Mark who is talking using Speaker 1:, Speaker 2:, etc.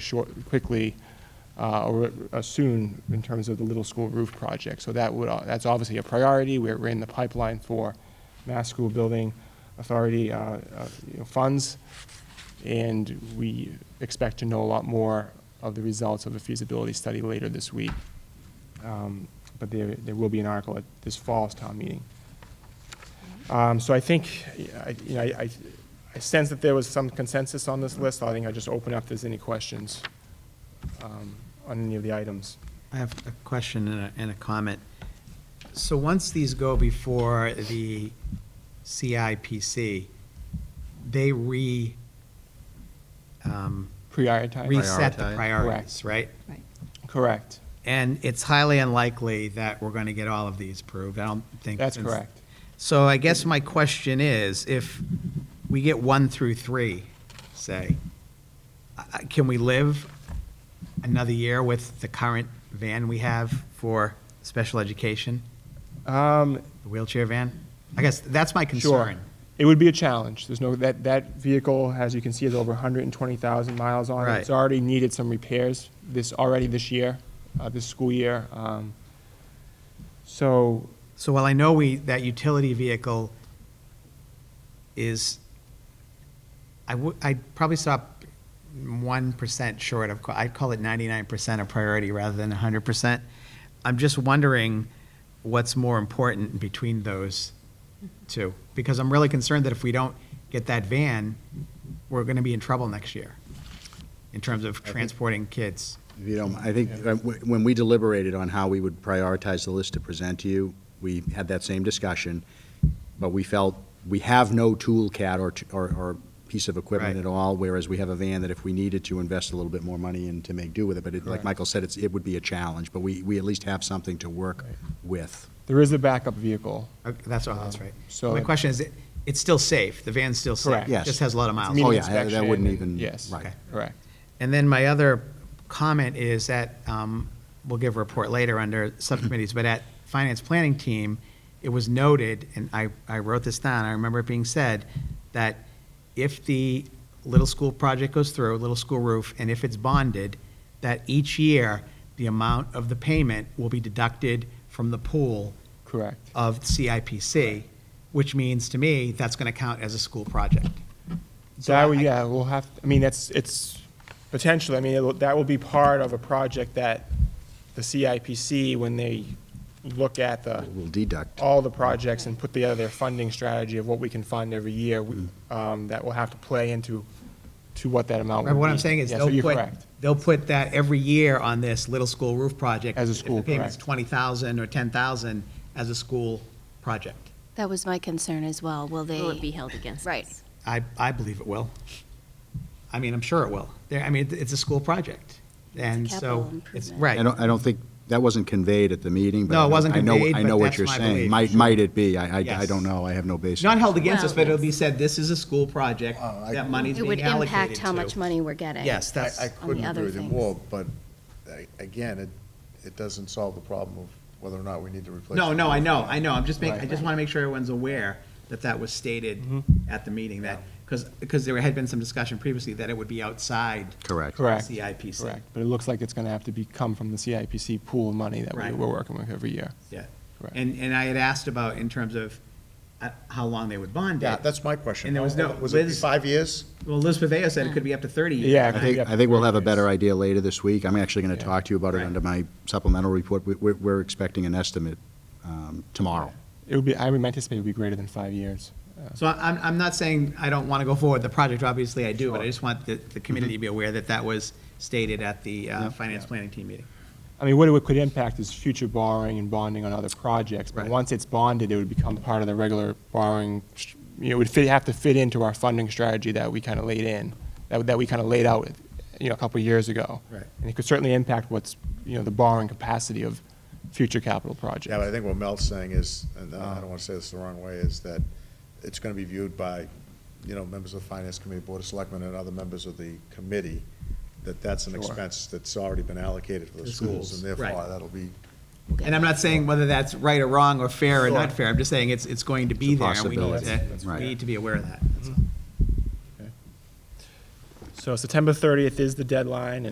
Speaker 1: short, quickly, uh, or uh, soon in terms of the little school roof project. So that would, uh, that's obviously a priority. We're we're in the pipeline for Mass School Building Authority uh, uh, you know, funds, and we expect to know a lot more of the results of the feasibility study later this week. Um, But there, there will be an article at this fall's town meeting. Um, So I think, I- you know, I, I sense that there was some consensus on this list. I think I just open up if there's any questions um, on any of the items.
Speaker 2: I have a question and a, and a comment. So once these go before the CIPC, they re, um,
Speaker 1: Prioritize?
Speaker 2: reset the
Speaker 3: Prioritize.
Speaker 2: priorities, right?
Speaker 4: Right.
Speaker 1: Correct.
Speaker 2: And it's highly unlikely that we're gonna get all of these approved. I don't think.
Speaker 1: That's correct.
Speaker 2: So I guess my question is, if we get one through three, say, I- I- can we live another year with the current van we have for special education,
Speaker 1: Um,
Speaker 2: the wheelchair van? I guess that's my
Speaker 1: Sure.
Speaker 2: concern.
Speaker 1: It would be a challenge. There's no, that, that vehicle, as you can see, is over 120,000 miles on it.
Speaker 2: Right.
Speaker 1: It's already needed some repairs this, already this year, uh, this school year. Um, So,
Speaker 2: So while I know we, that utility vehicle is, I would, I'd probably stop one percent short of, I'd call it ninety-nine percent of priority rather than hundred percent. I'm just wondering what's more important between those two, because I'm really concerned that if we don't get that van, we're gonna be in trouble next year in terms of transporting kids.
Speaker 3: If you don't, I think uh, wh- when we deliberated on how we would prioritize the list to present to you, we had that same discussion, but we felt we have no tool cat or, t- or, or piece of equipment
Speaker 2: Right.
Speaker 3: at all, whereas we have a van that if we needed to invest a little bit more money in to make do with it, but it, like
Speaker 1: Correct.
Speaker 3: Michael said, it's, it would be a challenge, but we, we at least have something to work
Speaker 1: Right.
Speaker 3: with.
Speaker 1: there is a backup vehicle.
Speaker 2: Okay, That's, oh, that's right.
Speaker 1: Um, So-
Speaker 2: My question is, it- it's still safe, the van's still safe?
Speaker 1: Correct.
Speaker 3: Yes.
Speaker 2: Just has a lot of miles.
Speaker 1: Meeting
Speaker 3: Oh, yeah, that- that
Speaker 1: inspection
Speaker 3: wouldn't
Speaker 1: and-
Speaker 3: even-
Speaker 1: Yes,
Speaker 3: right.
Speaker 1: correct.
Speaker 2: And then my other comment is that, um, we'll give a report later under subcommittees, but at finance planning team, it was noted, and I, I wrote this down, I remember it being said, that if the little school project goes through, little school roof, and if it's bonded, that each year, the amount of the payment will be deducted from the pool
Speaker 1: Correct.
Speaker 2: of CIPC, which means to me, that's going to count as a school project. So
Speaker 1: That,
Speaker 2: I-
Speaker 1: would- yeah, we'll have, I mean, that's, it's potentially, I mean, it'll- that will be part of a project that the CIPC, when they look at the,
Speaker 3: We'll deduct.
Speaker 1: all the projects and put together their funding strategy of what we can fund every year, we- um, that will have to play into, to what that amount would be.
Speaker 2: Remember what I'm saying is
Speaker 1: Yeah, so
Speaker 2: they'll
Speaker 1: you're
Speaker 2: put,
Speaker 1: correct.
Speaker 2: they'll put that every year on this little school roof project.
Speaker 1: As a
Speaker 2: If the
Speaker 1: school,
Speaker 2: payment's
Speaker 1: correct.
Speaker 2: 20,000 or 10,000 as a school project.
Speaker 4: That was my concern as well. Will they?
Speaker 5: Will it be held against
Speaker 4: Right.
Speaker 5: us?
Speaker 2: I, I believe it will. I mean, I'm sure it will. There, I mean, it- it's a school project. And so,
Speaker 4: capital
Speaker 2: it's,
Speaker 4: improvement.
Speaker 2: right.
Speaker 3: I don't, I don't think, that wasn't conveyed at the meeting, but.
Speaker 2: No,
Speaker 3: I
Speaker 2: it
Speaker 3: know-
Speaker 2: wasn't
Speaker 3: I know-
Speaker 2: conveyed,
Speaker 3: I
Speaker 2: but
Speaker 3: know what
Speaker 2: that's
Speaker 3: you're
Speaker 2: my
Speaker 3: saying.
Speaker 2: belief.
Speaker 3: Might, might it be? I, I, I
Speaker 2: Yes.
Speaker 3: don't know. I have no basis.
Speaker 2: It's not held against us,
Speaker 5: Well,
Speaker 2: but it'll be said, this is a school project, that money's
Speaker 4: It
Speaker 2: being
Speaker 4: would
Speaker 2: allocated
Speaker 4: impact how much
Speaker 2: to."
Speaker 4: money we're getting.
Speaker 2: Yes, that's.
Speaker 6: I- I couldn't
Speaker 4: other
Speaker 6: agree with you
Speaker 4: things.
Speaker 6: more, but I- again, it, it doesn't solve the problem of whether or not we need to replace.
Speaker 2: No,
Speaker 6: the
Speaker 2: no, I
Speaker 6: roof.
Speaker 2: know, I know, I'm just making, I
Speaker 1: Right.
Speaker 2: just want to make sure everyone's aware that that was stated
Speaker 1: Mm-hmm.
Speaker 2: at the meeting, that, because, because there had been some discussion previously that it would be outside.
Speaker 3: Correct.
Speaker 1: Correct.
Speaker 2: CIPC.
Speaker 1: Correct, but it looks like it's gonna have to be, come from the CIPC pool of money that we-
Speaker 2: Right.
Speaker 1: we're working with every year.
Speaker 2: Yeah.
Speaker 1: Correct.
Speaker 2: And, and I had asked about in terms of uh, how long they would bond
Speaker 6: Yeah,
Speaker 2: it.
Speaker 6: that's my question.
Speaker 2: And there was no-
Speaker 6: Was it
Speaker 2: Liz-
Speaker 6: five years?
Speaker 2: Well, Liz Paveo said it could be up to thirty.
Speaker 1: Yeah,
Speaker 3: I think, I think we'll have a better idea later this week. I'm actually going
Speaker 1: Yeah.
Speaker 3: to talk to you about it
Speaker 2: Right.
Speaker 3: under my supplemental report. We- We're, we're expecting an estimate um, tomorrow.
Speaker 1: It would be, I would anticipate it would be greater than five years.
Speaker 2: So I- I'm, I'm not saying I don't want to go forward with the project, obviously I do, but I just want the, the community to be aware that that was stated at the uh, finance planning team meeting.
Speaker 1: I mean, what it could impact is future borrowing and bonding on other projects. But
Speaker 2: Right.
Speaker 1: once it's bonded, it would become part of the regular borrowing, sh- you know, it would fit, have to fit into our funding strategy that we kind of laid in, that, that we kind of laid out, you know, a couple of years ago.
Speaker 2: Right.
Speaker 1: And it could certainly impact what's, you know, the borrowing capacity of future capital projects.
Speaker 6: Yeah, but I think what Mel's saying is, and
Speaker 2: Uh-huh.
Speaker 6: I don't want to say this the wrong way, is that it's going to be viewed by, you know, members of the Finance Committee, Board of Selectmen, and other members of the committee, that that's an
Speaker 1: Sure.
Speaker 6: expense that's already been allocated for the
Speaker 2: The
Speaker 6: schools, and
Speaker 2: schools, right.
Speaker 6: therefore, that'll be
Speaker 2: And I'm not saying whether that's right or wrong or fair or not
Speaker 6: Sure.
Speaker 2: fair, I'm just saying it's, it's going to be
Speaker 3: It's a
Speaker 2: there, and we need to,
Speaker 3: possibility,
Speaker 2: we
Speaker 3: right.
Speaker 2: need to be aware of that, that's all.
Speaker 1: So September 30th is the deadline,